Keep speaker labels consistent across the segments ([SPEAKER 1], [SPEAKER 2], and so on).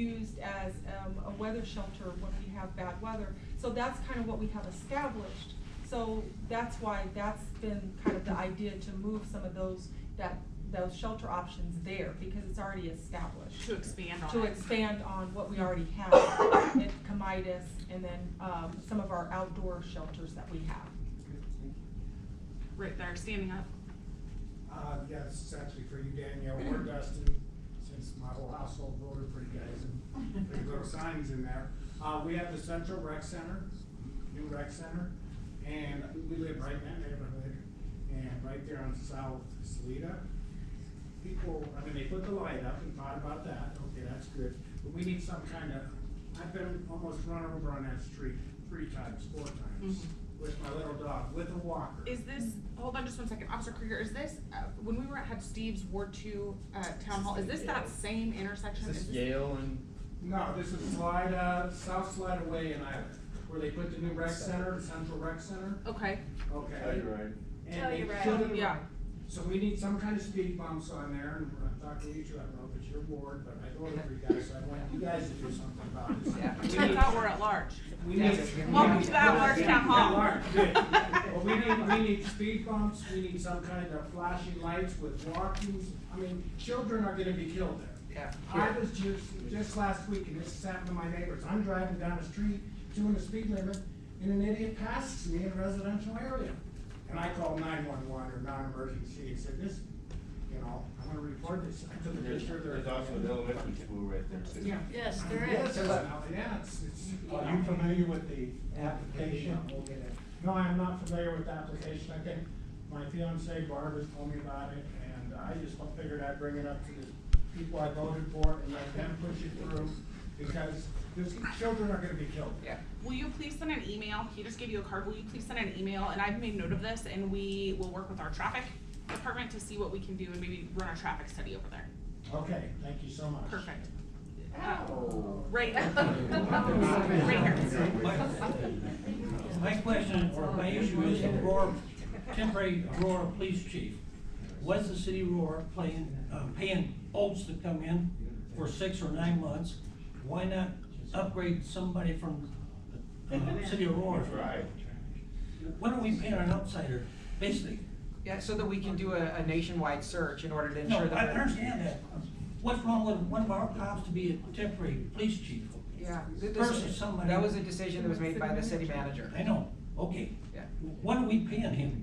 [SPEAKER 1] used as, um, a weather shelter when we have bad weather. So that's kind of what we have established. So that's why that's been kind of the idea to move some of those, that, those shelter options there, because it's already established.
[SPEAKER 2] To expand on
[SPEAKER 1] To
[SPEAKER 2] it.
[SPEAKER 1] expand on what we already have at Comitas and then, um, some of our outdoor shelters that we have.
[SPEAKER 2] Right there, standing up.
[SPEAKER 3] Uh, yes, it's actually for you, Danielle, or Dustin, since my whole household voted for you guys and there's little signs in there. Uh, we have the Central Rec Center, new rec center, and we live right in that neighborhood. And right there on South Salida, people, I mean, they put the light up and thought about that, okay, that's good. But we need some kind of, I've been almost run over on that street three times, four times, with my little dog, with a walker.
[SPEAKER 2] Is this, hold on just one second, Officer Krieger, is this, uh, when we were at, had Steve's Ward Two, uh, Town Hall, is this that same intersection?
[SPEAKER 4] Is this
[SPEAKER 2] Is this-
[SPEAKER 4] Yale and?
[SPEAKER 3] No, this is Slida, uh, South Slida Way in Island, where they put the new rec center, Central Rec Center.
[SPEAKER 2] Okay,
[SPEAKER 3] Okay.
[SPEAKER 4] Telluride.
[SPEAKER 3] And
[SPEAKER 5] Oh,
[SPEAKER 3] they
[SPEAKER 5] you're right.
[SPEAKER 3] put it-
[SPEAKER 2] Yeah.
[SPEAKER 3] So we need some kind of speed bumps on there, and I'm talking to you two, I don't know if it's your board, but I voted for you guys, so I want you guys to do something about this.
[SPEAKER 4] Yeah.
[SPEAKER 3] We
[SPEAKER 2] I
[SPEAKER 3] need-
[SPEAKER 2] thought we're at large.
[SPEAKER 3] we need.
[SPEAKER 2] Welcome to the at-large town hall.
[SPEAKER 3] At-large, good. Well, we need, we need speed bumps, we need some kind of flashing lights with walkings, I mean, children are gonna be killed there.
[SPEAKER 4] Yeah.
[SPEAKER 3] I was just, just last week, and this happened to my neighbors, I'm driving down the street, doing the speed limit, and an idiot passes me in a residential area. And I called nine-one-one or non-emergency and said, this, you know, I'm gonna report this, I took a
[SPEAKER 4] There's,
[SPEAKER 3] picture there.
[SPEAKER 4] there's also an elementary school right there too.
[SPEAKER 3] Yeah.
[SPEAKER 5] Yes, there
[SPEAKER 3] Yes,
[SPEAKER 5] is.
[SPEAKER 3] there's an ele- yeah, it's, it's.
[SPEAKER 6] Are you familiar with the application?
[SPEAKER 3] No, I'm not familiar with the application, I think my fiancee Barb has told me about it, and I just figured I'd bring it up to the people I voted for and let them push it through, because these children are gonna be killed.
[SPEAKER 4] Yeah.
[SPEAKER 2] Will you please send an email? He just gave you a card. Will you please send an email? And I've made note of this and we will work with our traffic department to see what we can do and maybe run a traffic study over there.
[SPEAKER 3] Okay, thank you so much.
[SPEAKER 2] Perfect. Uh,
[SPEAKER 3] Ow.
[SPEAKER 2] Right. Right here.
[SPEAKER 7] My question, or my issue is the Aurora, temporary Aurora police chief. Was the city of Aurora playing, uh, paying Olds to come in for six or nine months? Why not upgrade somebody from, uh, city of Aurora?
[SPEAKER 4] That's right.
[SPEAKER 7] Why don't we pay an outsider, basically?
[SPEAKER 8] Yeah, so that we can do a, a nationwide search in order to
[SPEAKER 7] No,
[SPEAKER 8] ensure that.
[SPEAKER 7] I understand that. What's wrong with one of our cops to be a temporary police chief?
[SPEAKER 8] Yeah. th- this-
[SPEAKER 7] Versus somebody.
[SPEAKER 8] That was a decision that was made by the city manager.
[SPEAKER 7] I know, okay.
[SPEAKER 8] Yeah.
[SPEAKER 7] What are we paying him?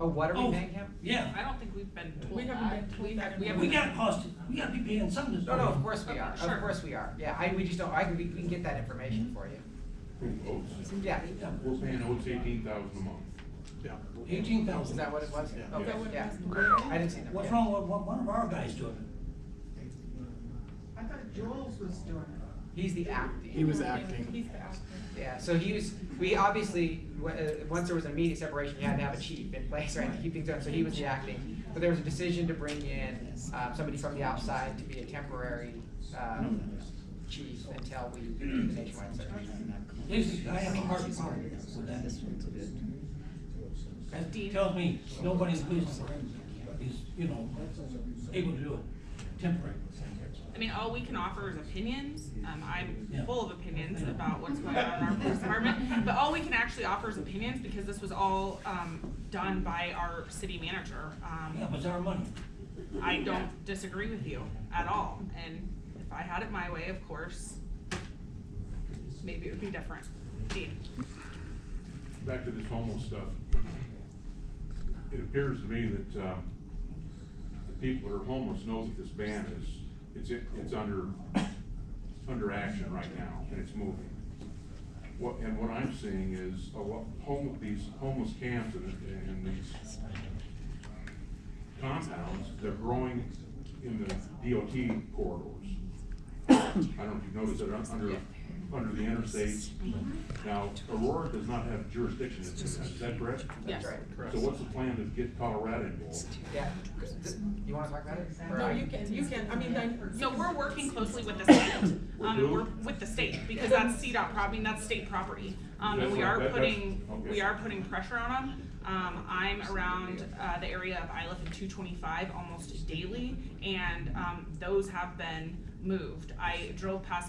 [SPEAKER 8] Oh, what are
[SPEAKER 7] Oh,
[SPEAKER 8] we paying him?
[SPEAKER 7] Yeah.
[SPEAKER 2] I don't think we've been told
[SPEAKER 1] We haven't
[SPEAKER 2] that.
[SPEAKER 1] been told
[SPEAKER 2] We
[SPEAKER 1] that
[SPEAKER 2] have-
[SPEAKER 1] in
[SPEAKER 2] We
[SPEAKER 1] the-
[SPEAKER 7] We
[SPEAKER 2] haven't.
[SPEAKER 7] got posted, we gotta be paying some of this.
[SPEAKER 8] No, no, of course we
[SPEAKER 2] Okay,
[SPEAKER 8] are,
[SPEAKER 2] sure.
[SPEAKER 8] of course we are, yeah, I, we just don't, I, can- we we can get that information for you.
[SPEAKER 9] Oats.
[SPEAKER 8] Yeah,
[SPEAKER 7] Yeah.
[SPEAKER 9] We're paying Oats eighteen thousand a month.
[SPEAKER 7] Eighteen
[SPEAKER 8] is
[SPEAKER 7] thousand.
[SPEAKER 8] that what it was?
[SPEAKER 9] Yeah.
[SPEAKER 8] Okay,
[SPEAKER 9] That
[SPEAKER 1] what it
[SPEAKER 8] yeah,
[SPEAKER 1] was?
[SPEAKER 8] I didn't see that.
[SPEAKER 7] What's
[SPEAKER 8] yeah.
[SPEAKER 7] wrong with one, one of our guys doing it?
[SPEAKER 5] I thought Jules was doing it.
[SPEAKER 8] He's the acting.
[SPEAKER 1] was acting. He's the acting.
[SPEAKER 8] Yeah, so he was, we obviously, w- uh, once there was an immediate separation, you had to have a chief in place, right, to keep things going, so he was the acting. But there was a decision to bring in, uh, somebody from the outside to be a temporary, uh, chief until we do the nationwide search.
[SPEAKER 7] Basically, I have a hard problem with that.
[SPEAKER 2] Dean.
[SPEAKER 7] That tells me nobody in the police department is, you know, able to do it temporary.
[SPEAKER 2] I mean, all we can offer is opinions. Um, I'm
[SPEAKER 7] Yeah.
[SPEAKER 2] full of opinions about what's going on in our police department, but all we can actually offer is opinions because this was all, um, done by our city manager.
[SPEAKER 7] Yeah,
[SPEAKER 2] Um,
[SPEAKER 7] but it's our money.
[SPEAKER 2] I don't disagree with you at all, and if I had it my way, of course, maybe it would be different. Dean,
[SPEAKER 9] Back to this homeless stuff. It appears to me that, um, the people that are homeless know that this ban is, it's, it's under, under action right now, and it's moving. What, and what I'm seeing is a lot, home, these homeless camps and, and these compounds, they're growing in the DOT corridors. I don't know if you've noticed that un- under, under the interstates. Now, Aurora does not have jurisdiction, in this, is that correct?
[SPEAKER 2] yes.
[SPEAKER 8] Right,
[SPEAKER 9] So what's the plan to get Colorado involved?
[SPEAKER 8] yeah, Th- you wanna talk about it? Or
[SPEAKER 1] No,
[SPEAKER 8] I-
[SPEAKER 1] you can, you can, I mean, I.
[SPEAKER 2] So we're working closely with the state,
[SPEAKER 9] With
[SPEAKER 2] um,
[SPEAKER 9] who?
[SPEAKER 2] we're with the state, because that's CDOT, pro- I mean, that's state property. Um, and we
[SPEAKER 9] That's
[SPEAKER 2] are
[SPEAKER 9] what- that- that's-
[SPEAKER 2] putting,
[SPEAKER 9] okay.
[SPEAKER 2] we are putting pressure on them. Um, I'm around, uh, the area of Iliff and two twenty-five almost daily, and, um, those have been moved. I drove past